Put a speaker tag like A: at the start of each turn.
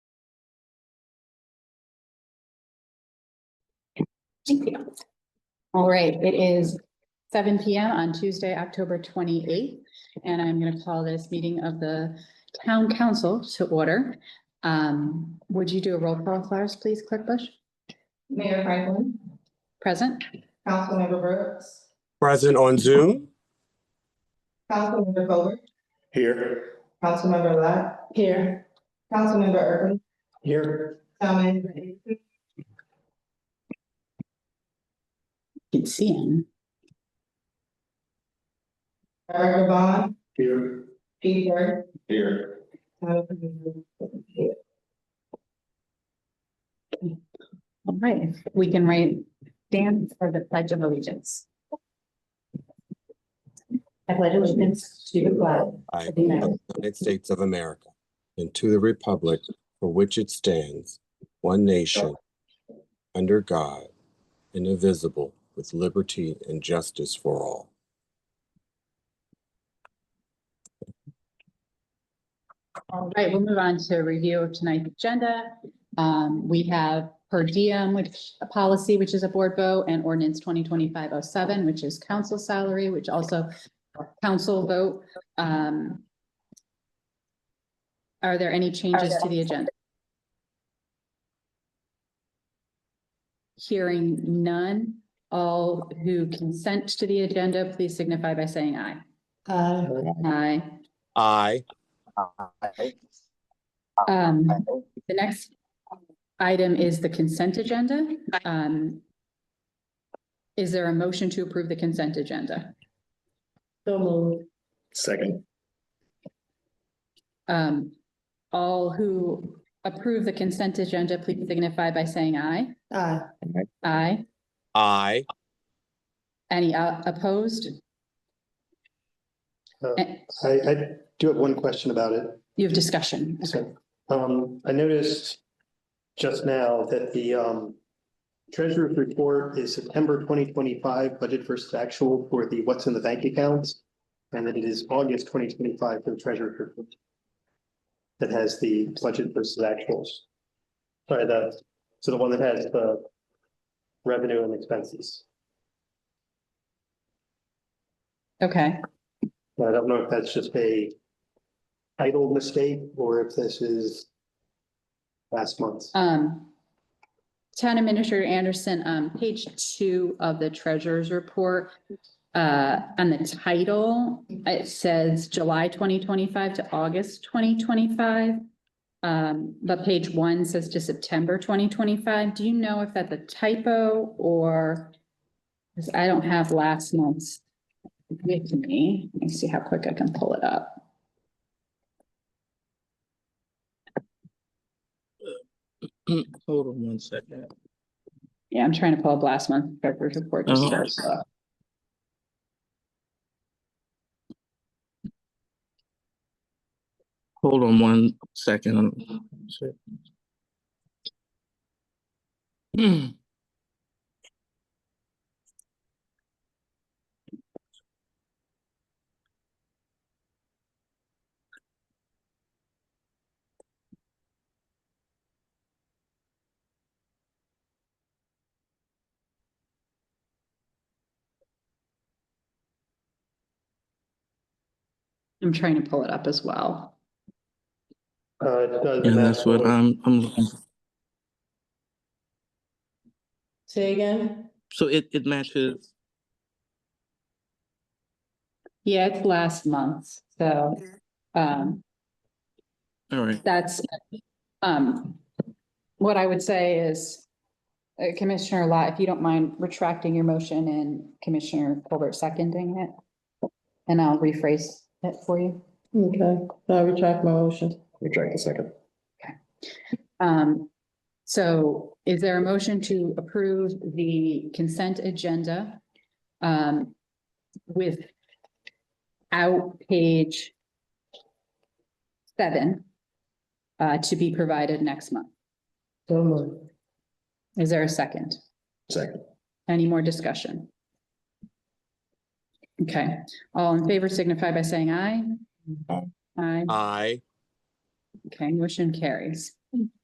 A: Thank you. All right, it is seven P M on Tuesday, October twenty-eighth, and I'm gonna call this meeting of the town council to order. Um, would you do a roll call, Flowers, please, Clerk Bush?
B: Mayor Franklin,
A: Present?
B: Councilmember Brooks,
C: Present on Zoom.
B: Councilmember Colbert,
C: Here.
B: Councilmember Lott,
A: Here.
B: Councilmember Irvin,
C: Here.
B: Town Manager Anderson,
A: Can see him.
B: Erica Vaughn,
C: Here.
B: Pete Burke.
C: Here.
A: All right, we can write Dan for the pledge of allegiance. I pledge allegiance to the flag
C: I,
A: of the United
C: the United States of America, and to the republic for which it stands, one nation, under God, indivisible, with liberty and justice for all.
A: All right, we'll move on to review of tonight's agenda. Um, we have per diem, which a policy, which is a board vote, and ordinance twenty twenty-five oh seven, which is council salary, which also council vote. Um, Are there any changes to the agenda? Hearing none, all who consent to the agenda, please signify by saying aye. Aye.
B: Uh,
A: Aye.
C: I,
A: Um, the next item is the consent agenda. Um, is there a motion to approve the consent agenda?
B: So moved.
D: Second.
A: Um, all who approve the consent agenda, please signify by saying aye.
B: Aye.
A: Aye.
C: I,
A: Any uh, opposed?
D: Uh,
A: Eh,
D: I, I do have one question about it.
A: You have discussion.
D: So, um, I noticed just now that the, um, treasurer's report is September twenty twenty-five budget versus actual for the what's in the bank accounts. And that it is August twenty twenty-five for the treasurer's report. That has the budget versus actuals. Sorry, the, so the one that has the revenue and expenses.
A: Okay,
D: And I don't know if that's just a title mistake or if this is last month's.
A: um. Town Administrator Anderson, um, page two of the treasurer's report. Uh, on the title, it says July twenty twenty-five to August twenty twenty-five. Um, but page one says to September twenty twenty-five. Do you know if that's a typo or? Cause I don't have last month's with me. Let me see how quick I can pull it up.
E: Hold on one second.
A: Yeah, I'm trying to pull up last month's treasurer's report. just so I saw it.
E: Hold on one second. Shit. Hmm.
A: I'm trying to pull it up as well.
D: Uh, it does
E: Yeah, that's what
D: matter.
E: I'm, I'm, looking for.
B: Say again?
E: so it, it matches,
A: Yeah, it's last month, so, um,
E: all right.
A: that's, um, what I would say is, uh, Commissioner Lot, if you don't mind retracting your motion and Commissioner Colbert seconding it, and I'll rephrase it for you.
B: Okay, I retract my motion.
D: Retract the second.
A: Um, so is there a motion to approve the consent agenda? Um, without page seven, uh, to be provided next month?
B: So moved.
A: Is there a second?
D: Second.
A: Any more discussion? Okay, all in favor signify by saying aye. Aye,
C: I,
A: okay, motion carries.